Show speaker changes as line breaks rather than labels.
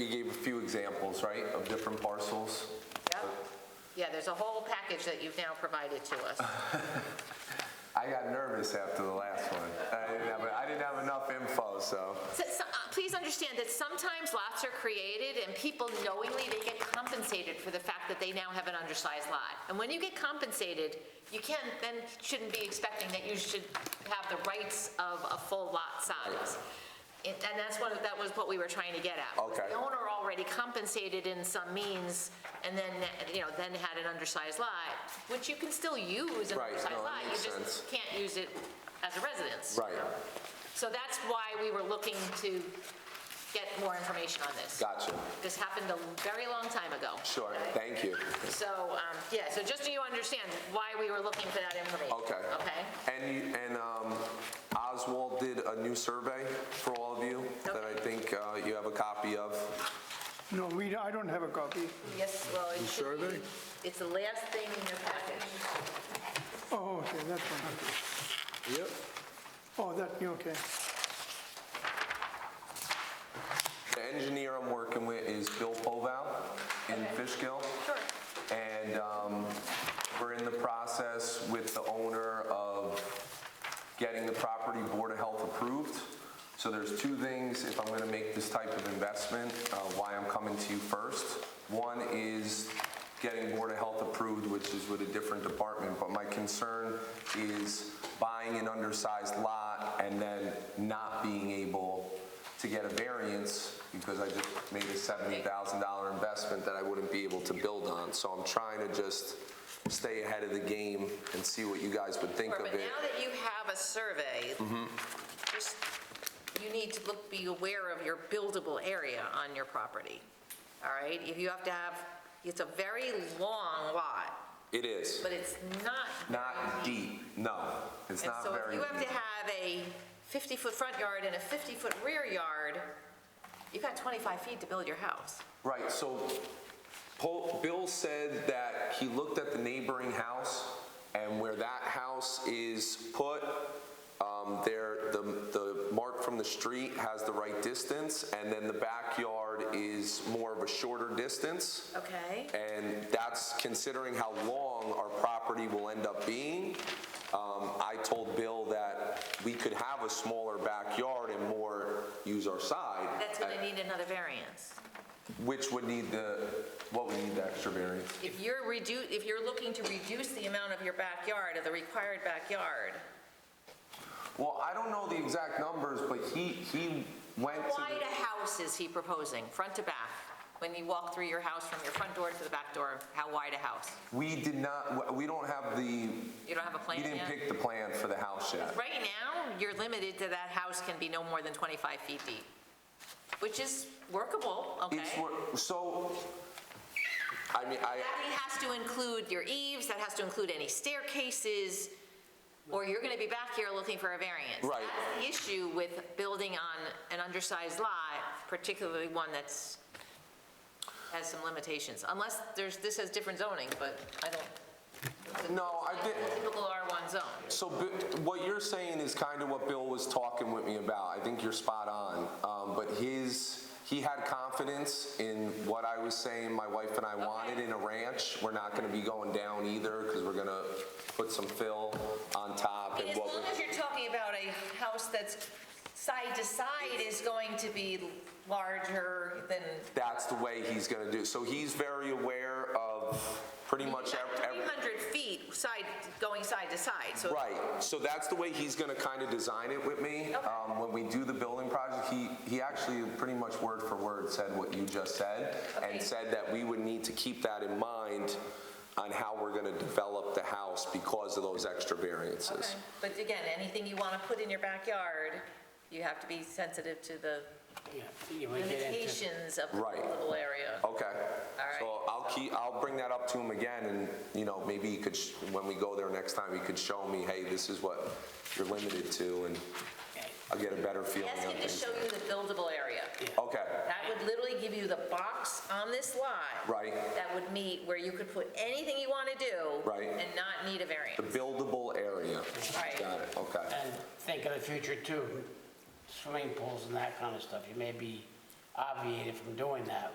You gave a few examples, right, of different parcels?
Yep. Yeah, there's a whole package that you've now provided to us.
I got nervous after the last one. I didn't have, I didn't have enough info, so.
So- so, uh, Please understand that sometimes lots are created and people knowingly, they get compensated for the fact that they now have an undersized lot. And when you get compensated, you can, then shouldn't be expecting that you should have the rights of a full lot size. And and that's what, that was what we were trying to get at. was
Okay.
The owner already compensated in some means and then, you know, then had an undersized lot, which you can still use an
Right,
undersized
no, that
lot.
makes
You
sense.
just can't use it as a residence.
Right,
So that's why we were looking to get more information on this.
gotcha.
This happened a very long time ago.
Sure, thank you.
So, um, yeah, so just so you understand why we were looking for that information.
Okay.
Okay?
And, you- and um, Oswald did a new survey for all of you that I think uh, you have a copy of.
No, we, I don't have a copy.
Yes, well, it should be.
survey?
It's the last thing in your package.
Oh, okay, that one.
Yep.
Oh, that, okay.
The engineer I'm working with is Bill Povow in Fishkill.
Sure.
And um, we're in the process with the owner of getting the property Board of Health approved. So there's two things, if I'm going to make this type of investment, uh, why I'm coming to you first. One is getting Board of Health approved, which is with a different department, but my concern is buying an undersized lot and then not being able to get a variance because I just made a $70,000 investment that I wouldn't be able to build on. So I'm trying to just stay ahead of the game and see what you Mm-hmm. guys would think
Sure,
of
But
it.
now that you have a survey, just, you need to look, be aware of your buildable area on your property, all right? If you have to have, it's a very long lot,
It is.
but it's not.
Not deep, no. It's
And
not
so if
very
you
deep.
have to have a 50-foot front yard and a 50-foot rear yard, you've got 25 feet to build your house.
Right, so Paul- Bill said that he looked at the neighboring house and where that house is put, um, there, the, the mark from the street has the right distance and then the backyard is more of a shorter distance.
Okay.
And that's considering how long our property will end up being. Um, I told Bill that we could have a smaller backyard and more use our side. uh,
That's going to need another variance.
Which would need the, what would need the extra variance?
If you're redu, if you're looking to reduce the amount of your backyard, of the required backyard,
Well, I don't know the exact numbers, but he, he went to,
wide a house is he proposing, front to back? When you walk through your house from your front door to the back door, how wide a house?
the- we did not, we don't have the,
You don't have a
we
plan
didn't
yet?
pick the plan for the house yet.
Right now, you're limited to that house can be no more than 25 feet deep, which is workable, okay?
It's, wor- so, I mean, I,
That has to include your eaves, that has to include any staircases, or you're going to be back here looking for a variance.
Right.
That's the issue with building on an undersized lot, particularly one that's, has some limitations. Unless there's, this has different zoning, but I don't,
no, I did,
typical R1 zone.
So Bi- what you're saying is kind of what Bill was talking with me about. I think you're spot on. Um, But his, he had confidence in what I was saying, my wife and I wanted in a ranch. We're not going to be going down either because we're going to put some fill on top
I mean,
and
As
what
long
we
as you're talking about a house that's side to side is going to be larger than,
that's the way he's going to do. it. So he's very aware of pretty much ev- every.
300 feet side, going side to side, so.
Right, so that's the way he's gonna kind of design it with me. Um, When we do the building project, he, he actually pretty much word for word said what you just said,
Okay.
and said that we would need to keep that in mind on how we're gonna develop the house because of those extra variances.
But again, anything you want to put in your backyard, you have to be sensitive to the
Yeah, you might get into-
limitations of the
Right.
little area.
Okay.
right.
So I'll keep, I'll bring that up to him again, and, you know, maybe he could, sh- when we go there next time, he could show me, hey, this is what you're limited to, and I'll get a better feeling
Ask
of
him to
things.
show you the buildable area.
Okay,
That would literally give you the box on this lot
right.
that would meet where you could put anything you want to do.
Right.
And not need a
The
variance.
buildable area.
Right.
Got it, okay.
And think of the future too, swimming pools and that kind of stuff. You may be obviated from doing that